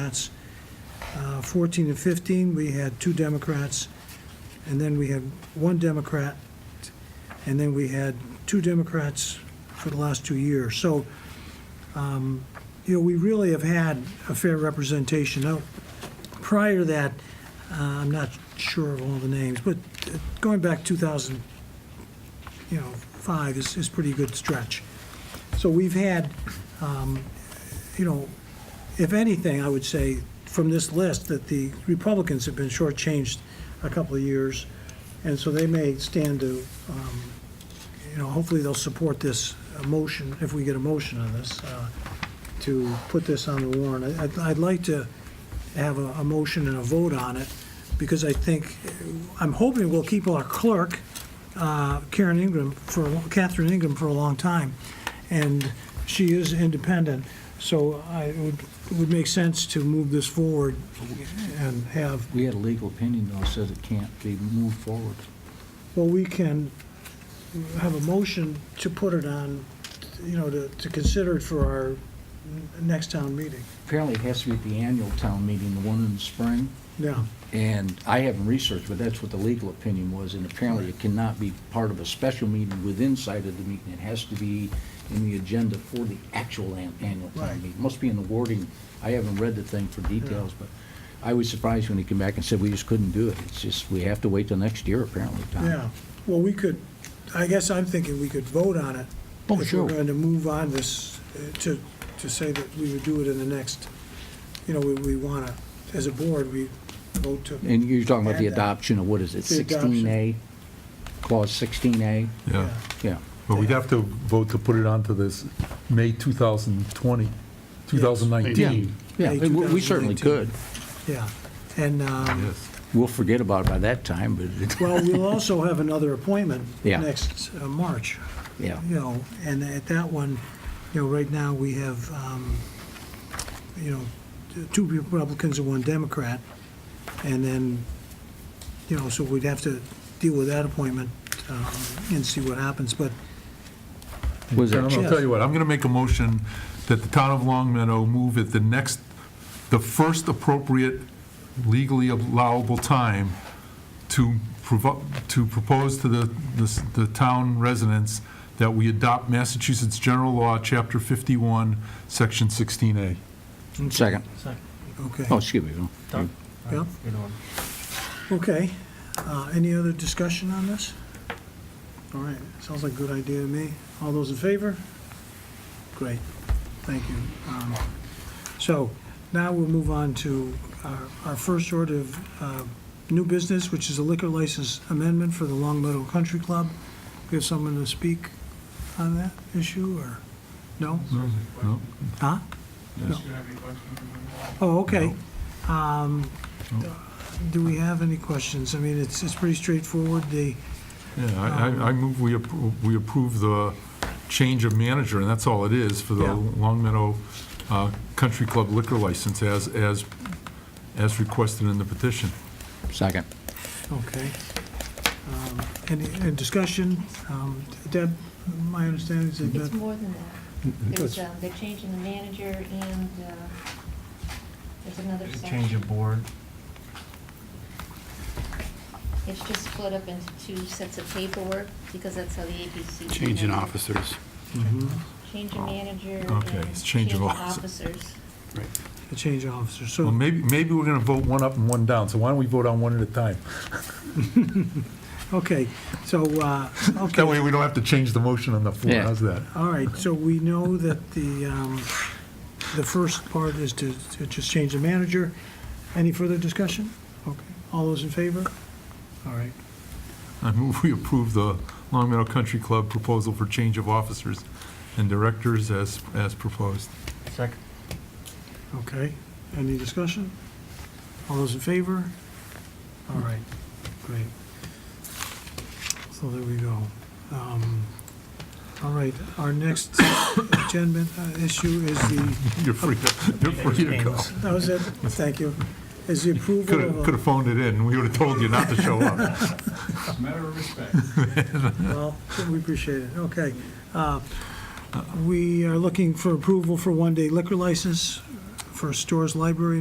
Democrats. Uh, 14 and 15, we had two Democrats, and then we had one Democrat, and then we had two Democrats for the last two years. So, um, you know, we really have had a fair representation. Now, prior to that, uh, I'm not sure of all the names, but uh, going back 2000, you know, five is, is pretty good stretch. So we've had, um, you know, if anything, I would say from this list that the Republicans have been shortchanged a couple of years, and so they may stand to, um, you know, hopefully they'll support this uh, motion, if we get a motion on this, uh, to put this on the warrant. I- I'd, I'd like to have a, a motion and a vote on it, because I think, I'm hoping we'll keep our clerk, uh, Karen Ingram, for, Catherine Ingram for a long time, and she is independent, so I, it would, it would make sense to move this forward and have, We had a legal opinion, though, says it can't be moved forward. well, we can have a motion to put it on, you know, to, to consider it for our n- next town meeting. Apparently, it has to be at the annual town meeting, the one in the spring, Yeah, and I haven't researched, but that's what the legal opinion was, and apparently it cannot be part of a special meeting within sight of the meeting. It has to be in the agenda for the actual an- annual Right. town meeting. Must be in the wording. I haven't read the thing for details, but I was surprised when he came back and said, we just couldn't do it. It's just, we have to wait till next year, apparently, Tom. yeah. Well, we could, I guess I'm thinking we could vote on it. Oh, sure. If we're going to move on this, uh, to, to say that we would do it in the next, you know, we, we want to, as a board, we vote to. And you're talking about the Add that. adoption of, what is it, uh, The adoption. 16A? Clause 16A? Yeah, Yeah. but we'd have to vote to put it onto this May 2020, 2019. Yeah, May we- we certainly 2019. could. Yeah, and, um, Yes. We'll forget about it by that time, but, well, we'll also have another appointment Yeah. next uh, March, yeah. you know, and at that one, you know, right now, we have, um, you know, t- two Republicans and one Democrat, and then, you know, so we'd have to deal with that appointment um, and see what happens, but, Was Tom, that, I'll tell you what, I'm going to make a motion that the town of Long Meadow move at the next, the first appropriate legally allowable time to provo, to propose to the, the- the town residents that we adopt Massachusetts General Law, Chapter 51, Section 16A. second? okay. Oh, excuse me. no. Yep. Okay, Uh, any other discussion on this? All right, sounds like a good idea to me. All those in favor? Great, thank you. Um, So now we'll move on to our- our first order of uh, new business, which is a liquor license amendment for the Long Meadow Country Club. We have someone to speak on that issue, or, no? No? Huh? Oh, okay. Um, Do we have any questions? I mean, it's, it's pretty straightforward, the, Yeah, I- I, I move we appro- we approve the change of manager, and that's all it is, for the Yeah. Long Meadow uh, Country Club liquor license as, as, as requested in the petition. Second. okay. Um, Any, any discussion? Um, Deb, my understanding is that It's Deb- more than that. There's, um, they're changing the manager and, uh, there's another Change section. of board. It's just split up into two sets of paperwork, because that's how the APC. Change in officers. Change of manager Okay, and it's change of officer. officers. Right. the change of officer, Well, so, maybe, maybe we're gonna vote one up and one down, so why don't we vote on one at a time? okay, so, uh, That okay, way, we don't have to change the motion on the floor, Yeah. how's that? all right, so we know that the, um, the first part is to, to just change the manager. Any further discussion? Okay, all those in favor? All right, I move we approve the Long Meadow Country Club proposal for change of officers and directors as, as proposed. Second. Okay, any discussion? All those in favor? All right, great. So there we go. Um, All right, our next agenda uh, issue is the, You're free, to- you're free to go. that was it, thank you, is the approval Could've, of, could've phoned it in, we would've told you not to show up. a- well, we appreciate it, okay. Uh, We are looking for approval for one-day liquor license for Stores Library